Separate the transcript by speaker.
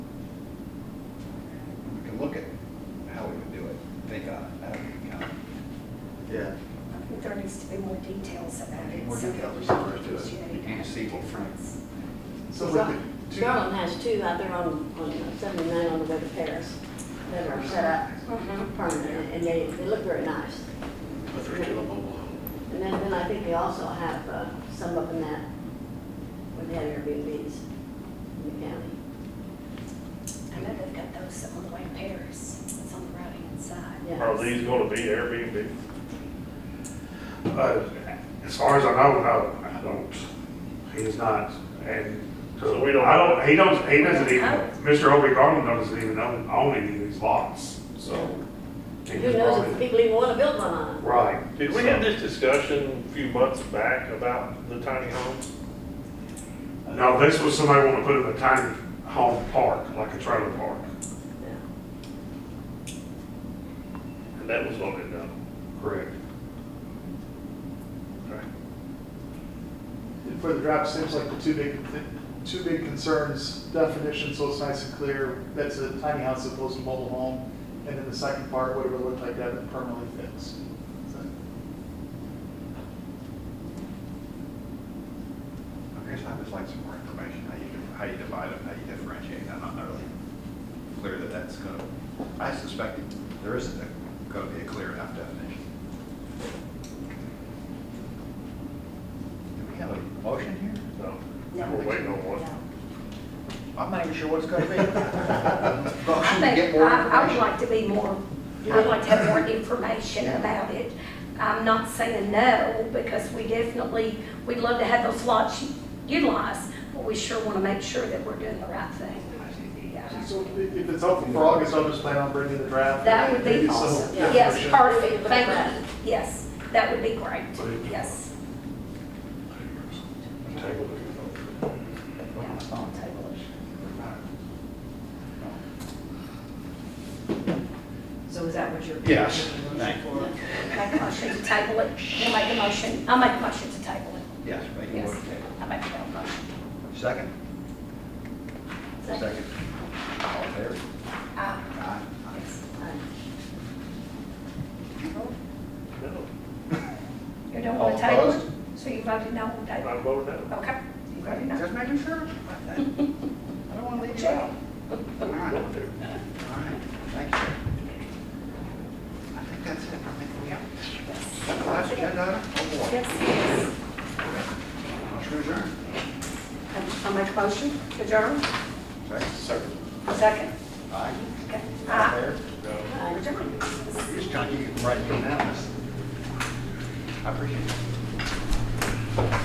Speaker 1: details about it.
Speaker 2: More
Speaker 1: so
Speaker 2: details
Speaker 1: that
Speaker 2: are
Speaker 1: we can
Speaker 2: to it.
Speaker 1: appreciate
Speaker 2: You can't see what Frank-
Speaker 1: difference.
Speaker 2: So with the two,
Speaker 3: Garland has two out there on, on seventy-nine on the way to Paris that are set up permanent, and they, they look very nice.
Speaker 4: But there's still a mobile home.
Speaker 3: And then, then I think they also have uh, some up in that, where they have Airbnbs in the county.
Speaker 1: I know they've got those on the way to Paris, it's on the right hand side.
Speaker 3: Yeah.
Speaker 5: Are these gonna be Airbnb? Uh, As far as I know, no, I don't. He's not, and,
Speaker 6: So we don't-
Speaker 5: I don't, he don't, he doesn't even,
Speaker 1: Oh.
Speaker 5: Mr. Obie Garland doesn't even own, own any of these lots, so. he
Speaker 3: Who
Speaker 5: just
Speaker 3: knows
Speaker 5: bought
Speaker 3: if the
Speaker 5: it.
Speaker 3: people even wanna build one on them?
Speaker 5: Right.
Speaker 6: Did we
Speaker 5: so-
Speaker 6: have this discussion a few months back about the tiny homes?
Speaker 5: No, this was somebody wanting to put in a tiny home park, like a trailer park.
Speaker 3: Yeah.
Speaker 6: And that was voted down.
Speaker 5: Correct.
Speaker 2: for the draft, seems like the two big, the two big concerns, definition, so it's nice and clear, that's a tiny house as opposed to mobile home. And then the second part, whatever looked like that permanently fixed.
Speaker 7: I guess I'd just like some more information, how you, di- how you divide them, how you differentiate, I'm not really clear that that's gonna, I suspect it- there isn't a- gonna be a clear enough definition. Do we have a motion here?
Speaker 6: No.
Speaker 1: No.
Speaker 6: We're waiting on one.
Speaker 7: I'm not even sure what it's gonna be. Motion to
Speaker 1: I
Speaker 7: get
Speaker 1: think,
Speaker 7: more
Speaker 1: I, I would
Speaker 7: information.
Speaker 1: like to be more, I'd like to have more information about it. I'm not saying no, because we definitely, we'd love to have those lots utilized, but we sure want to make sure that we're doing the right thing. Yeah.
Speaker 2: So i- if it's open for August, I'll just plan on bringing the draft.
Speaker 1: That would be
Speaker 2: Maybe some
Speaker 1: awesome.
Speaker 3: yeah.
Speaker 1: Yes,
Speaker 2: definition.
Speaker 1: perfect, thank you. Yes, that would be great, yes.
Speaker 5: Table
Speaker 1: Yeah, I'll table it.
Speaker 8: So is that what you're?
Speaker 7: Yes,
Speaker 8: you're
Speaker 7: thank
Speaker 8: looking for?
Speaker 1: Make a motion to table it, we'll make a motion, I'll make a motion to table it.
Speaker 7: Yes, make a
Speaker 1: Yes,
Speaker 7: motion.
Speaker 1: I make that motion.
Speaker 7: Second?
Speaker 3: Second.
Speaker 7: All in favor?
Speaker 1: Aye.
Speaker 7: Aye.
Speaker 1: Yes.
Speaker 6: No,
Speaker 1: You don't want to
Speaker 7: All
Speaker 1: table it,
Speaker 7: opposed?
Speaker 1: so you voted no on table.
Speaker 6: I'm voting no.
Speaker 1: Okay, you voted no.
Speaker 7: Just making sure. I don't wanna leave you out. All right. All right, thank you. I think that's it. I think we have. Last agenda item? Oh, boy.
Speaker 1: Yes, yes.
Speaker 7: Motion adjourned.
Speaker 1: I- I make a motion to adjourn,
Speaker 7: Second. Second.
Speaker 1: second.
Speaker 7: Aye.
Speaker 1: Okay.
Speaker 7: All
Speaker 1: Aye.
Speaker 7: in
Speaker 3: Uh,
Speaker 1: Adjourn.
Speaker 7: favor? Just trying to keep you right now. I appreciate it.